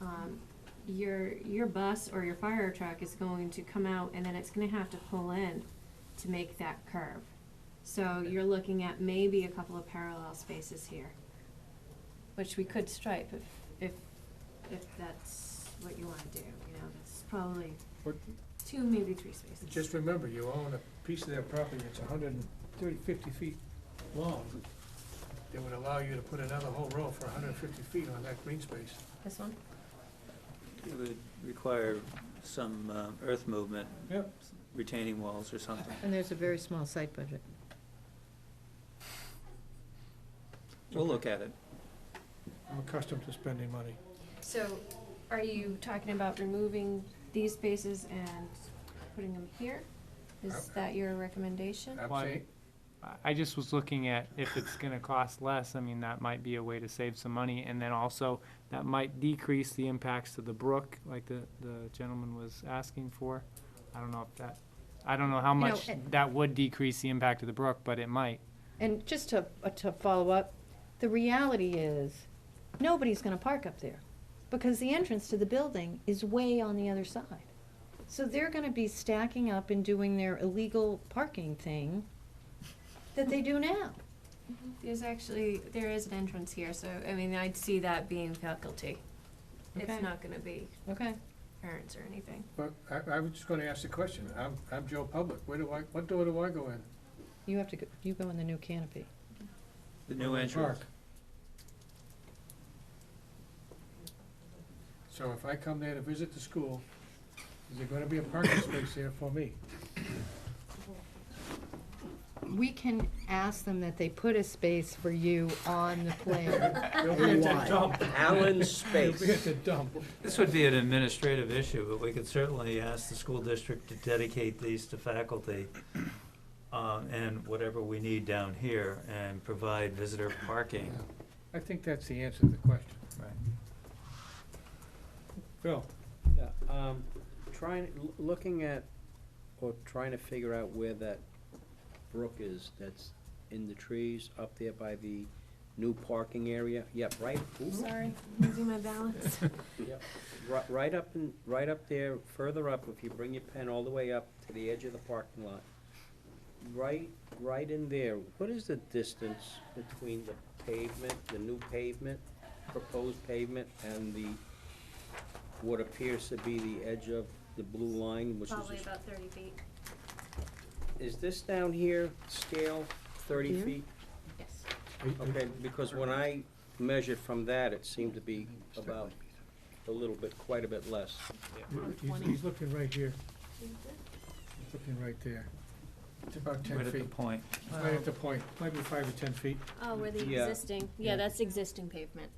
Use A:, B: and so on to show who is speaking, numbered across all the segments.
A: um, your, your bus or your fire truck is going to come out and then it's gonna have to pull in to make that curve. So you're looking at maybe a couple of parallel spaces here, which we could stripe if, if, if that's what you wanna do, you know, that's probably
B: But
A: two, maybe three spaces.
B: just remember, you own a piece of their property that's 130, 50 feet long. They would allow you to put another whole row for hundred and fifty feet on that green space.
A: This one?
C: It would require some um, earth movement.
B: Yep.
C: Retaining walls or something.
D: And there's a very small site budget.
C: We'll look at it.
B: I'm accustomed to spending money.
A: So are you talking about removing these spaces and putting them here? Is that your recommendation?
B: I'm
E: Why-
B: saying-
E: I- I just was looking at if it's gonna cost less, I mean, that might be a way to save some money, and then also, that might decrease the impacts to the brook, like the, the gentleman was asking for. I don't know if that, I don't know how
D: know,
E: much
D: it-
E: that would decrease the impact of the brook, but it might.
D: And just to, uh, to follow up, the reality is, nobody's gonna park up there, because the entrance to the building is way on the other side. So they're gonna be stacking up and doing their illegal parking thing that they do now.
A: There's actually, there is an entrance here, so, I mean, I'd see that being faculty.
D: Okay.
A: It's not gonna be
D: Okay.
A: parents or anything.
B: But I, I was just gonna ask the question, I'm, I'm Joe Public, where do I, what door do I go in?
D: You have to, go you go in the new canopy.
C: The new entrance.
B: Park. So if I come there to visit the school, is there gonna be a parking space there for me?
D: We can ask them that they put a space for you on the plan.
B: They'll be at the dump.
F: Allen's
B: They'll be at
F: space.
B: the dump.
C: This would be an administrative issue, but we could certainly ask the school district to dedicate these to faculty uh, and whatever we need down here and provide visitor parking.
B: I think that's the answer to the question.
C: Right.
B: Bill?
F: Yeah, um, Trying, l- looking at, or trying to figure out where that brook is that's in the trees up there by the new parking area. Yep, right, ooh,
A: Sorry, losing my balance.
F: ri- right up and, right up there, further up, if you bring your pen all the way up to the edge of the parking lot. Right, right in there, what is the distance between the pavement, the new pavement, proposed pavement, and the, what appears to be the edge of the blue line, which is the
A: Probably about thirty feet.
F: Is this down here scale thirty
D: Here?
F: feet?
A: Yes.
F: Okay, because when I measured from that, it seemed to be about a little bit, quite a bit less.
B: He's, he's looking right here, he's looking right there. It's about ten
C: Right at the
B: feet,
C: point.
B: right at the point, might be five or ten feet,
A: Oh, where the
F: Yeah.
A: existing, yeah,
B: Yeah.
A: that's existing pavement.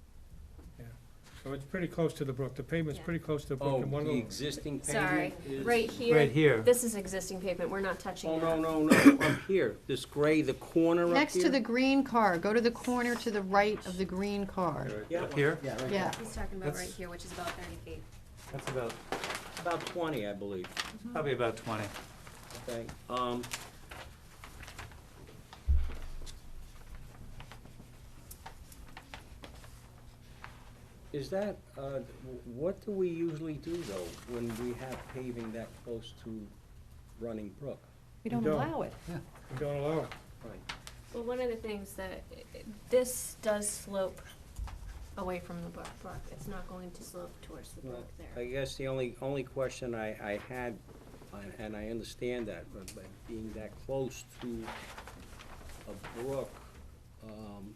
B: so it's pretty close to the brook, the pavement's
A: Yeah.
B: pretty close to the
F: Oh,
B: brook, and one
F: the
B: little,
F: existing
A: Sorry,
F: pavement is.
A: right
C: Right
A: here,
C: here.
A: this is existing pavement, we're not touching
F: Oh,
A: that.
F: no, no, no, up here, this gray, the corner up here.
D: Next to the green car, go to the corner to the right of the green car.
F: Yeah,
C: Up here?
D: Yeah,
A: He's talking about right
C: That's-
A: here, which is about thirty feet.
C: That's about,
F: about twenty, I believe,
C: probably about twenty.
F: okay, um. Is that, uh, wh- what do we usually do though, when we have paving that close to running brook?
D: we
B: You
D: don't
B: don't.
D: allow it.
B: you don't allow it.
F: Right.
A: Well, one of the things that, this does slope away from the brook, it's not going to slope towards the
F: Well,
A: brook
F: I
A: there.
F: guess the only, only question I, I had, and- and I understand that, but but being that close to a brook, um,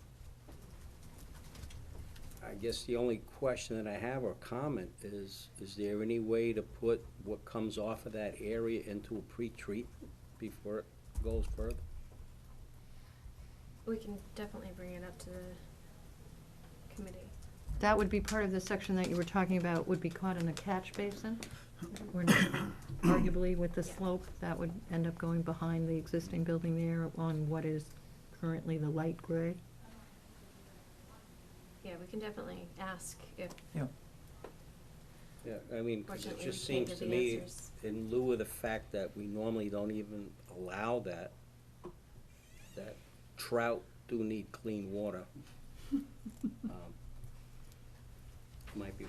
F: I guess the only question that I have or comment is, is there any way to put what comes off of that area into a pre-treatment before it goes further?
A: We can definitely bring it up to the committee.
D: That would be part of the section that you were talking about, would be caught in a catch basin? Or not, arguably with the
A: Yeah.
D: slope, that would end up going behind the existing building there on what is currently the light gray?
A: Yeah, we can definitely ask if
F: Yeah, I mean, 'cause it
A: fortunately
F: just
A: we can't
F: seems
A: give
F: to
A: the
F: me,
A: answers.
F: in lieu of the fact that we normally don't even allow that, that trout do need clean water. um, Might be